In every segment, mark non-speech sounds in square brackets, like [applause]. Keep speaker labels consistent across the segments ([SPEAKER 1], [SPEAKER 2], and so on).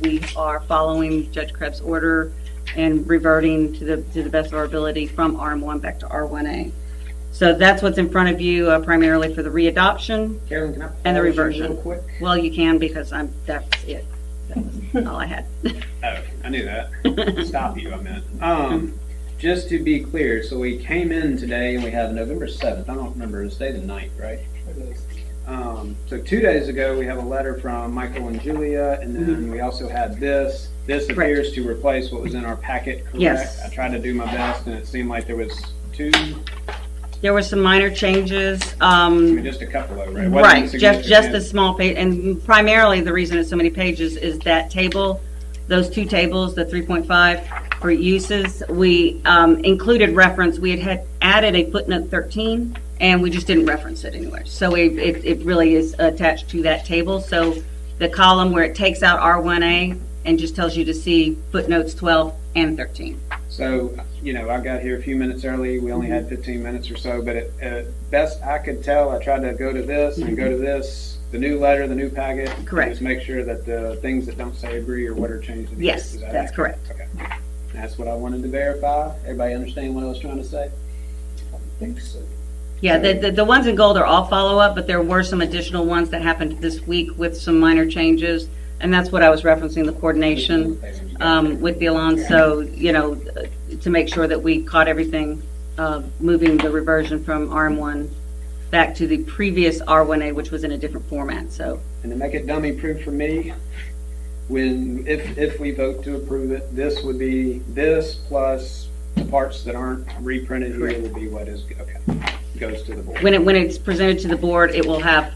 [SPEAKER 1] we are following Judge Krebs' order and reverting to the, to the best of our ability from RM1 back to R1A. So that's what's in front of you uh, primarily for the readoption.
[SPEAKER 2] Carolyn, can I?
[SPEAKER 1] And the
[SPEAKER 2] pause you
[SPEAKER 1] reversion.
[SPEAKER 2] Real quick.
[SPEAKER 1] Well, you can because I'm, that's it. That's all I had.
[SPEAKER 3] Oh, I
[SPEAKER 2] [laughs]
[SPEAKER 3] knew that. Stop you, I meant. Um, just to be clear, so we came in today and we had November seventh, I don't remember, it was day the ninth, right? Um, so two days ago, we have a letter from Michael and Julia, and
[SPEAKER 2] Mm-hmm.
[SPEAKER 3] then we also had this. This
[SPEAKER 1] Correct.
[SPEAKER 3] appears to replace what was in our packet, correct?
[SPEAKER 1] Yes.
[SPEAKER 3] I tried to do my best and it seemed like there was two,
[SPEAKER 1] There were some minor changes.
[SPEAKER 3] I
[SPEAKER 1] um,
[SPEAKER 3] mean, just a couple of, right? It wasn't
[SPEAKER 1] Right, just, just
[SPEAKER 3] significant.
[SPEAKER 1] a small page, and primarily the reason it's so many pages is that table, those two tables, the 3.5 for uses, we um, included reference, we had had added a footnote 13, and we just didn't reference it anywhere. So it, it it really is attached to that table, so the column where it takes out R1A and just tells you to see footnotes 12 and 13.
[SPEAKER 3] So, you know, I got here a few minutes early. We only had 15 minutes or so, but at, at best I could tell, I tried to go to this and go to this, the new letter, the new packet. and
[SPEAKER 1] Correct.
[SPEAKER 3] Just make sure that the things that don't say agree or what are changed. in the
[SPEAKER 1] Yes,
[SPEAKER 3] is that
[SPEAKER 1] that's
[SPEAKER 3] accurate? Okay. That's what I wanted to verify. Everybody understand what I was trying to say?
[SPEAKER 2] I think so.
[SPEAKER 1] Yeah, the, the, the ones in gold are all follow-up, but there were some additional ones that happened this week with some minor changes. And that's what I was referencing, the coordination, um, with the Alonso, you know, to make sure that we caught everything, uh, moving the reversion from RM1 back to the previous R1A, which was in a different format, so.
[SPEAKER 3] And to make it dummy proof for me, when, if, if we vote to approve it, this would be, this plus the parts that aren't reprinted here would be what is, okay, goes to the board.
[SPEAKER 1] When it, when it's presented to the board, it will have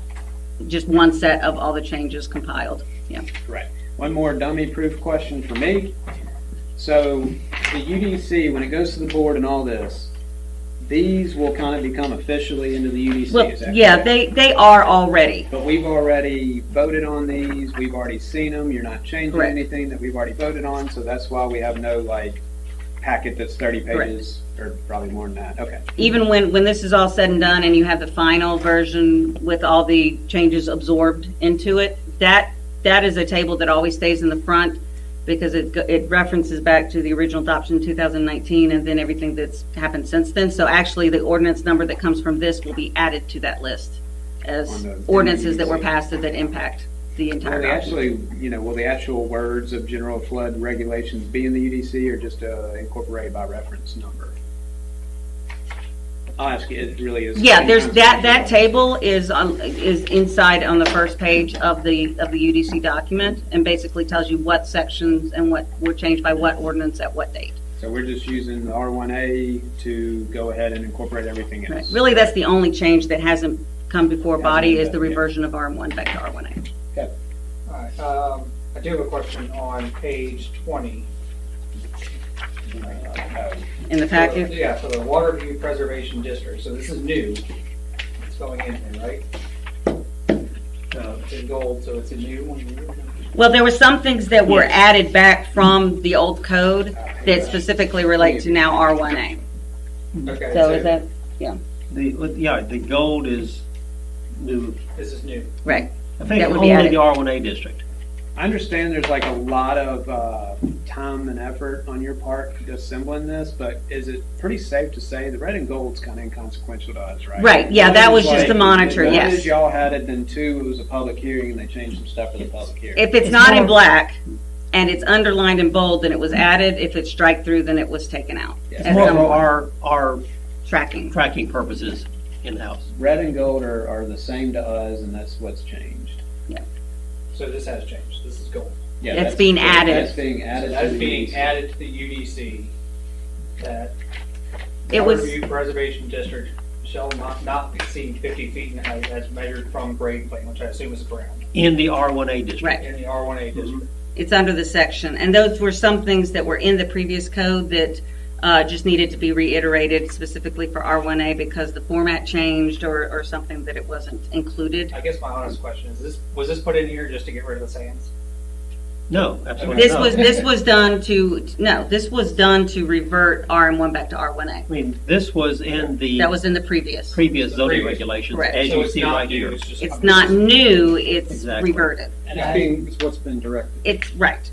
[SPEAKER 1] just one set of all the changes compiled, yeah.
[SPEAKER 3] Right. One more dummy-proof question for me. So the UDC, when it goes to the board and all this, these will kind of become officially into the UDC.
[SPEAKER 1] Well,
[SPEAKER 3] is that
[SPEAKER 1] yeah,
[SPEAKER 3] correct?
[SPEAKER 1] they, they are already.
[SPEAKER 3] But we've already voted on these, we've already seen them, you're not changing
[SPEAKER 1] Correct.
[SPEAKER 3] anything that we've already voted on, so that's why we have no like packet that's thirty
[SPEAKER 1] Correct.
[SPEAKER 3] pages, or probably more than that, okay.
[SPEAKER 1] even when, when this is all said and done and you have the final version with all the changes absorbed into it, that, that is a table that always stays in the front because it, go- it references back to the original adoption in 2019 and then everything that's happened since then. So actually, the ordinance number that comes from this will be added to that list
[SPEAKER 3] On
[SPEAKER 1] as
[SPEAKER 3] the-
[SPEAKER 1] ordinances that were
[SPEAKER 3] NEUC.
[SPEAKER 1] passed that impact the
[SPEAKER 3] Will
[SPEAKER 1] entire
[SPEAKER 3] the
[SPEAKER 1] document.
[SPEAKER 3] actually, you know, will the actual words of general flood regulations be in the UDC or just uh, incorporated by reference number? I'll ask you, it really is.
[SPEAKER 1] Yeah, there's, that, that table is on, is inside on the first page of the, of the UDC document, and basically tells you what sections and what were changed by what ordinance at what date.
[SPEAKER 3] So we're just using the R1A to go ahead and incorporate everything
[SPEAKER 1] Right.
[SPEAKER 3] else.
[SPEAKER 1] Really, that's the only change that hasn't come before body, is the reversion of RM1 back to R1A.
[SPEAKER 4] All right, um, I do have a question on page twenty.
[SPEAKER 3] Uh,
[SPEAKER 1] In the packet,
[SPEAKER 4] Yeah, so the Waterview Preservation District, so this is new, it's going in here, right? So it's in gold, so it's a new one.
[SPEAKER 1] well, there were some things that were added back from the old code that specifically relate to now R1A.
[SPEAKER 4] Okay,
[SPEAKER 1] So is that,
[SPEAKER 5] The, with- yeah, the gold is new.
[SPEAKER 4] This is new.
[SPEAKER 1] right,
[SPEAKER 5] I think
[SPEAKER 1] That would be
[SPEAKER 5] only
[SPEAKER 1] added.
[SPEAKER 5] the R1A district.
[SPEAKER 3] I understand there's like a lot of uh, time and effort on your part assembling this, but is it pretty safe to say the red and gold's kind of inconsequential to us, right?
[SPEAKER 1] Right, yeah, that was
[SPEAKER 3] One is
[SPEAKER 1] just the
[SPEAKER 3] like-
[SPEAKER 1] monitor,
[SPEAKER 3] One
[SPEAKER 1] yes.
[SPEAKER 3] is y'all had it, then two, it was a public hearing, and they changed some stuff for the public hearing.
[SPEAKER 1] If it's not in black and it's underlined in bold, then it was added. If it's strike through, then it was taken out.
[SPEAKER 3] Yeah.
[SPEAKER 1] As
[SPEAKER 5] More
[SPEAKER 1] I'm
[SPEAKER 5] for our, our
[SPEAKER 1] tracking.
[SPEAKER 5] tracking purposes in-house.
[SPEAKER 3] Red and gold are, are the same to us, and that's what's changed.
[SPEAKER 4] So this has changed, this is gold.
[SPEAKER 3] Yeah,
[SPEAKER 1] It's
[SPEAKER 3] that's-
[SPEAKER 1] being added.
[SPEAKER 3] That's being
[SPEAKER 4] So
[SPEAKER 3] added.
[SPEAKER 4] that's
[SPEAKER 3] to
[SPEAKER 4] being
[SPEAKER 3] these.
[SPEAKER 4] added to the UDC, that
[SPEAKER 1] It was-
[SPEAKER 4] Waterview Preservation District shall not, not exceed fifty feet in height as measured from grade plane, which I assume is ground,
[SPEAKER 5] In the R1A district.
[SPEAKER 1] Right.
[SPEAKER 4] in the R one
[SPEAKER 5] Mm-hmm.
[SPEAKER 4] A district.
[SPEAKER 1] It's under the section. And those were some things that were in the previous code that uh, just needed to be reiterated specifically for R1A because the format changed or, or something that it wasn't included.
[SPEAKER 4] I guess my honest question is, this, was this put in here just to get rid of the sands?
[SPEAKER 5] No, absolutely
[SPEAKER 1] This
[SPEAKER 5] not.
[SPEAKER 1] was, this was done to, no, this was done to revert RM1 back to R1A.
[SPEAKER 5] I mean, this was in the
[SPEAKER 1] That was in the previous.
[SPEAKER 5] previous zoning
[SPEAKER 4] Previous.
[SPEAKER 5] regulations,
[SPEAKER 1] Correct.
[SPEAKER 5] as
[SPEAKER 4] So
[SPEAKER 5] you
[SPEAKER 4] it's
[SPEAKER 5] see
[SPEAKER 4] not
[SPEAKER 5] right
[SPEAKER 4] new,
[SPEAKER 5] here.
[SPEAKER 4] just-
[SPEAKER 1] It's not new, it's
[SPEAKER 5] Exactly.
[SPEAKER 1] reverted.
[SPEAKER 3] And it's being, it's what's been directed.
[SPEAKER 1] It's, right.